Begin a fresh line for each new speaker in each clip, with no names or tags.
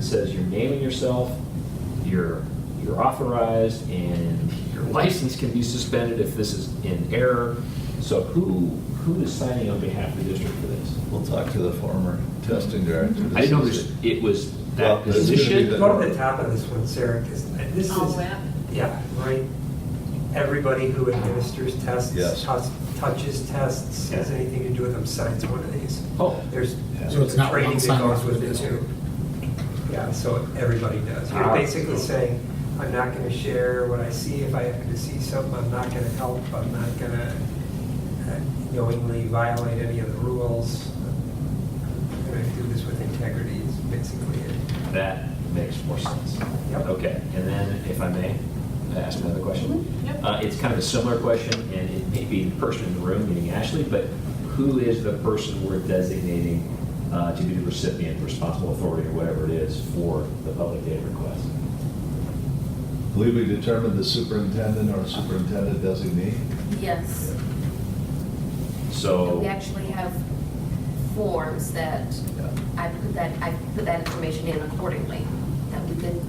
says you're naming yourself, you're, you're authorized, and your license can be suspended if this is in error. So who, who is signing on behalf of the district for this?
We'll talk to the former testing director. to
I didn't know
see
this-
if-
it was
Well,
that
this is gonna be
position.
the-
Go to the top of this one, Sarah, because this
Oh,
is,
wow.
yeah, right? Everybody who administers tests,
Yes.
tus- touches tests, has
Yeah.
anything to do with them, signs one of these.
Oh.
There's,
Yeah. So
there's
it's
a
not
training
one
that
sign
goes
off
with
the
it too.
district.
Yeah, so everybody does. You're
Ah.
basically saying, I'm not going to share what I see. If I happen to see something, I'm not going to help. I'm not going to knowingly violate any of the rules. I'm going to do this with integrity is basically it.
That makes more sense.
Yep.
Okay, and then if I may, ask another question?
Mhm, yep.
Uh, It's kind of a similar question, and it may be the person in the room, meaning Ashley, but who is the person we're designating uh, to be the recipient, responsible authority, or whatever it is, for the public data request?
I Believe we determined the superintendent or superintendent designee?
Yes.
So.
We actually have forms that
Yeah.
I put that, I put that information in accordingly, that we could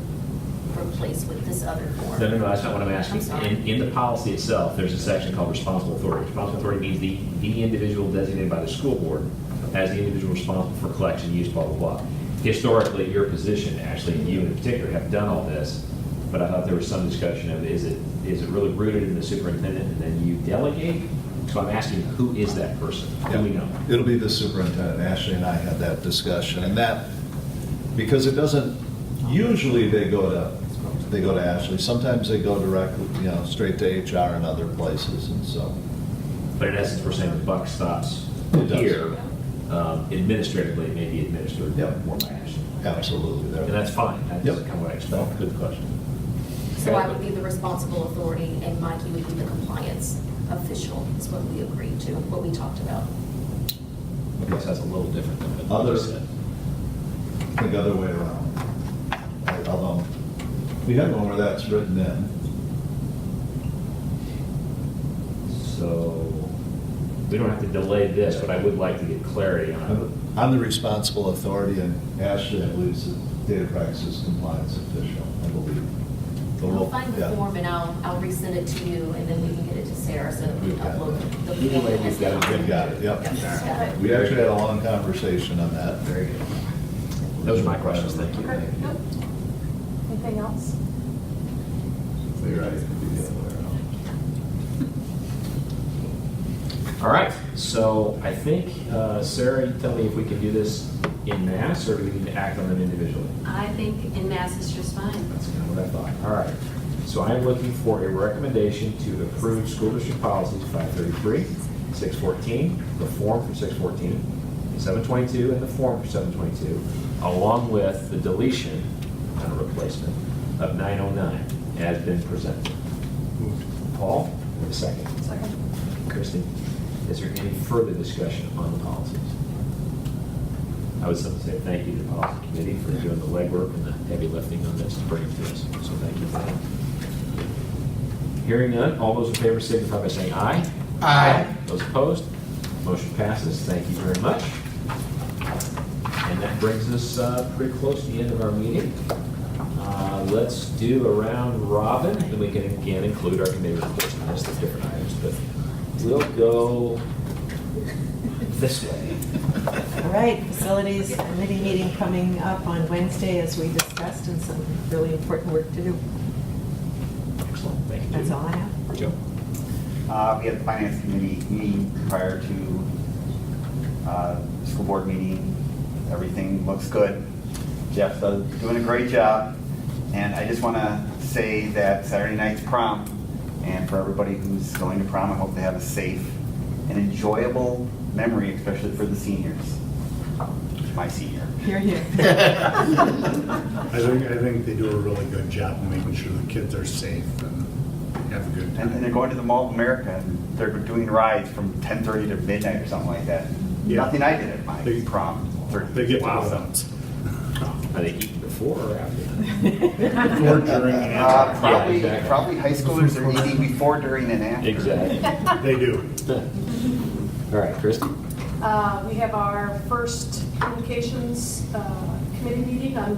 replace with this other form.
No, no, no, that's not what I'm
I'm
asking.
sorry.
In, in the policy itself, there's a section called responsible authority. Responsible authority means the, the individual designated by the school board as the individual responsible for collection, use, blah, blah, blah. Historically, your position, actually, and you in particular, have done all this, but I thought there was some discussion of, is it, is it really rooted in the superintendent and then you delegate? So I'm asking, who is that person? Do we know?
It'll be the superintendent. Ashley and I had that discussion, and that, because it doesn't, usually they go to, they go to Ashley. Sometimes they go directly, you know, straight to HR and other places, and so.
But in essence, we're saying the buck stops
It does.
here. Um, Administratively, it may be administered
Yep.
more by Ashley.
Absolutely. they're-
And that's fine, that's
Yep.
kind of what I expect, good question.
So I would be the responsible authority and Mike, you would be the compliance official, is what we agreed to, what we talked about.
I guess that's a little different than what you
Other-
said.
I think other way around. Like, Although, we have one where that's written in.
So, we don't have to delay this, but I would like to get clarity on
I'm the responsible authority, and Ashley, I believe, is the data practices compliance official, I believe. But we'll-
I'll find the
yeah.
form and I'll, I'll resend it to you and then we can get it to Sarah so that we
We've
can
got
upload
it.
the.
Either
form
way, we've
as
got
it. We've got it, yep.
Yep.
We actually had a long conversation on that.
Very good. Those are my questions, thank you.
Okay, nope.
Anything else?
So you're right, it could be the other way around.
it. All right, so I think, uh, Sarah, you tell me if we can do this in mass, or do we need to act on them individually?
I think in mass is just fine.
That's kind of what I thought. All right. So I am looking for a recommendation to approve school district policies 533, 614, the form for 614, 722, and the form for 722, along with the deletion, not a replacement, of 909 as been presented. Paul, with a second.
Second.
Christie, is there any further discussion on the policies? I would simply say thank you to the policy committee for doing the legwork and the heavy lifting on this to bring it to us, so thank you for that. Hearing none, all those in favor signify by saying aye.
Aye.
Those opposed, motion passes, thank you very much. And that brings us uh, pretty close to the end of our meeting. Uh, Let's do a round robin, and we can again include our committee reports and list of different items, but we'll go this way.
All right, facilities committee meeting coming up on Wednesday, as we discussed, and some really important work to do.
Excellent, thank you.
That's all I have.
Joe.
Uh, We had the finance committee meeting prior to uh, school board meeting. Everything looks good. Jeff's uh, doing a great job. And I just want to say that Saturday night's prom, and for everybody who's going to prom, I hope they have a safe and enjoyable memory, especially for the seniors. My senior.
Here, here.
I think, I think they do a really good job of making sure the kids are safe and have a good
And and they're
time.
going to the Mall of America, and they're doing rides from 10:30 to midnight or something like that.
Yeah.
Nothing I did at my
They-
prom. 30.
They get
Wow.
wow. outs.
Are they eating before or after?
Before, during, and
Uh,
after.
Probably,
exactly.
probably high schoolers are eating before, during, and after.
They do.
All right, Christie?
Uh, We have our first communications uh, committee meeting on